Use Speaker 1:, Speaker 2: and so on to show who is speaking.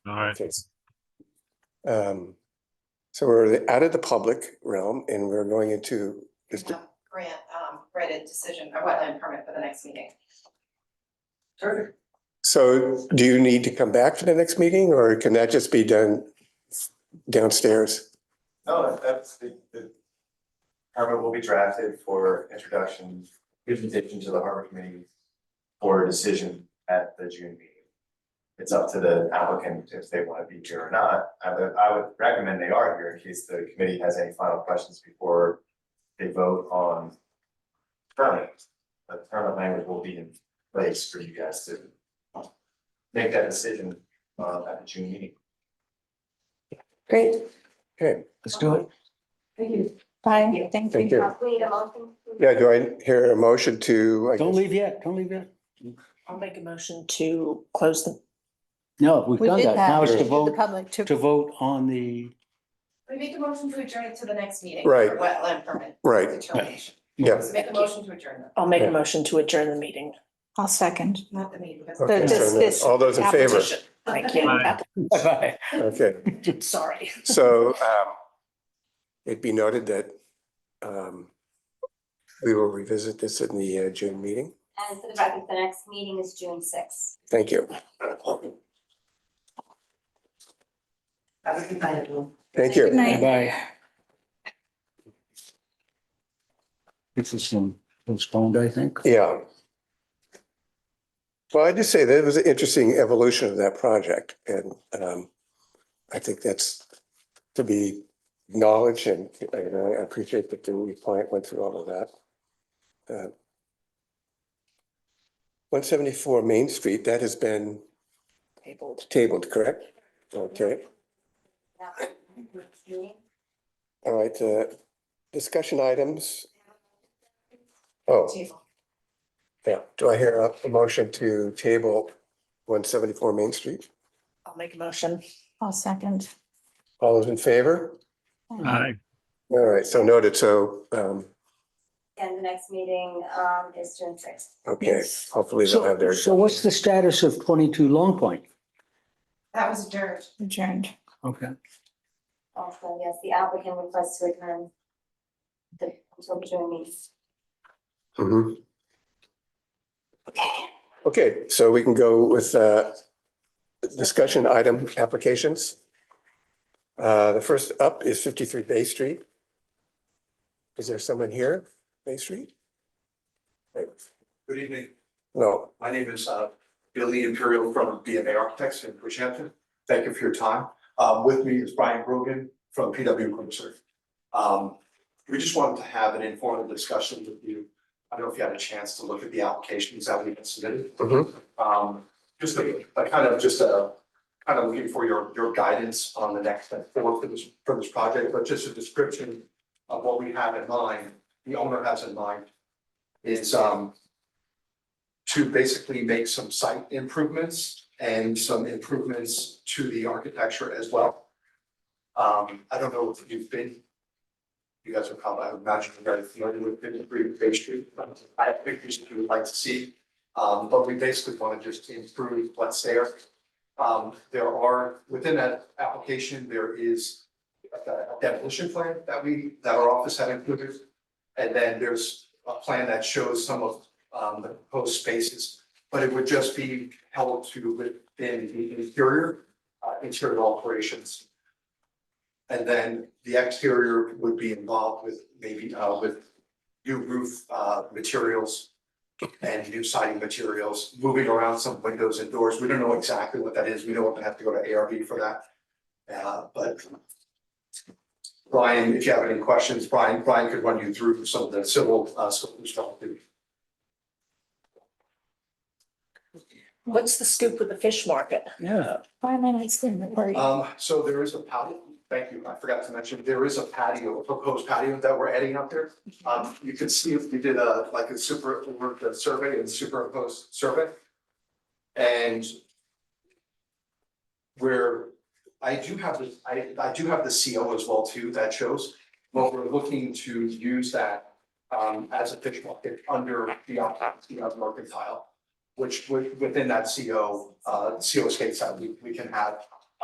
Speaker 1: All right.
Speaker 2: case. Um, so we're out of the public realm and we're going into this,
Speaker 3: Yeah, Grant, um, granted decision, a wetland permit for the next meeting.
Speaker 4: Perfect.
Speaker 2: so do you need to come back for the next meeting or can that just be done downstairs?
Speaker 5: No, that- that's the, the permit will be drafted for introduction, presentation to the harbor committee for a decision at the June meeting. It's up to the applicant if they want to be here or not. I would, I would recommend they are here in case the committee has any final questions before they vote on permit. But permit language will be in place for you guys to make that decision uh, at the June meeting.
Speaker 4: Great,
Speaker 2: Okay,
Speaker 6: Let's do it.
Speaker 4: thank you.
Speaker 7: Fine, thank
Speaker 2: thank
Speaker 7: you.
Speaker 2: you.
Speaker 8: We need a motion.
Speaker 2: Yeah, do I hear a motion to? I
Speaker 6: Don't
Speaker 2: guess-
Speaker 6: leave yet. Don't leave yet.
Speaker 7: I'll make a motion to close the.
Speaker 6: No, we've
Speaker 7: We
Speaker 6: done
Speaker 7: did
Speaker 6: that. Now it's to
Speaker 2: that.
Speaker 7: The
Speaker 6: vote,
Speaker 7: public
Speaker 6: to
Speaker 7: to,
Speaker 6: vote on the,
Speaker 3: We make a motion to adjourn it to the next meeting.
Speaker 2: Right.
Speaker 3: for Wetland permit.
Speaker 2: Right,
Speaker 3: Determination.
Speaker 2: yeah,
Speaker 3: Make a motion to adjourn that,
Speaker 9: I'll make
Speaker 2: Yeah.
Speaker 9: a motion to adjourn the meeting.
Speaker 7: I'll second.
Speaker 3: not the meeting. but-
Speaker 2: okay,
Speaker 7: just this
Speaker 2: so all those in favor,
Speaker 7: application.
Speaker 9: Thank you.
Speaker 1: Aye.
Speaker 6: bye-bye.
Speaker 2: okay.
Speaker 9: Sorry.
Speaker 2: So um it'd be noted that um we will revisit this in the uh, June meeting.
Speaker 8: And for the record, the next meeting is June sixth.
Speaker 2: Thank you.
Speaker 4: Have a good night, everyone.
Speaker 2: Thank you.
Speaker 7: Good night.
Speaker 6: Bye. This is some postponed, I think.
Speaker 2: Yeah. Well, I just say that it was an interesting evolution of that project and um I think that's to be acknowledged and and I appreciate that the client went through all of that. Uh, One seventy-four Main Street, that has been
Speaker 7: Tabled.
Speaker 2: tabled, correct? Okay. All right, uh, discussion items. Oh,
Speaker 3: Table.
Speaker 2: yeah. Do I hear a- a motion to table one seventy-four Main Street?
Speaker 9: I'll make a motion.
Speaker 7: I'll second.
Speaker 2: All those in favor?
Speaker 1: Aye.
Speaker 2: All right, so noted. So, um,
Speaker 8: And the next meeting, um, is June sixth.
Speaker 2: okay,
Speaker 7: Yes.
Speaker 2: hopefully they'll have
Speaker 6: So,
Speaker 2: their.
Speaker 6: so what's the status of twenty-two Long Point?
Speaker 3: That was adjourned.
Speaker 7: Adjourned.
Speaker 6: Okay.
Speaker 8: Also, yes, the applicant requests to return the, until the June meeting.
Speaker 2: Mhm. Okay, so we can go with, uh, discussion item applications. Uh, the first up is fifty-three Bay Street. Is there someone here, Bay Street?
Speaker 10: Good evening.
Speaker 2: No,
Speaker 10: My name is uh, Billy Imperial from BMA Architects in Bridgehampton. Thank you for your time. Um, With me is Brian Grogan from PW Cruiser. Um, We just wanted to have an informal discussion with you. I don't know if you had a chance to look at the applications that we've submitted.
Speaker 2: Mhm.
Speaker 10: Um, Just a a kind of, just a, kind of looking for your, your guidance on the next step forward for this, for this project, but just a description of what we have in mind, the owner has in mind, is um, to basically make some site improvements and some improvements to the architecture as well. Um, I don't know if you've been, you guys are probably, I imagine you're very familiar with fifty-three Bay Street, but I have pictures if you would like to see. Um, but we basically want to just improve what's there. Um, there are, within that application, there is a demolition plan that we, that our office had included. And then there's a plan that shows some of um, the proposed spaces, but it would just be held to within the interior, uh, interior alterations. And then the exterior would be involved with maybe, uh, with new roof, uh, materials and new siding materials, moving around some windows and doors. We don't know exactly what that is. We don't have to go to ARB for that. Uh, but Brian, if you have any questions, Brian, Brian could run you through some of the civil, uh, stuff.
Speaker 9: What's the scoop with the fish market?
Speaker 6: Yeah.
Speaker 7: Five minutes, didn't worry.
Speaker 10: Um, so there is a patio, thank you, I forgot to mention, there is a patio, a proposed patio that we're adding up there. Um, you can see if we did a, like a super, worked a survey and superimposed survey. And where I do have the, I, I do have the CO as well too, that shows, but we're looking to use that um, as a fish market under the occupancy of mercantile, which would, within that CO, uh, CO states that we, we can have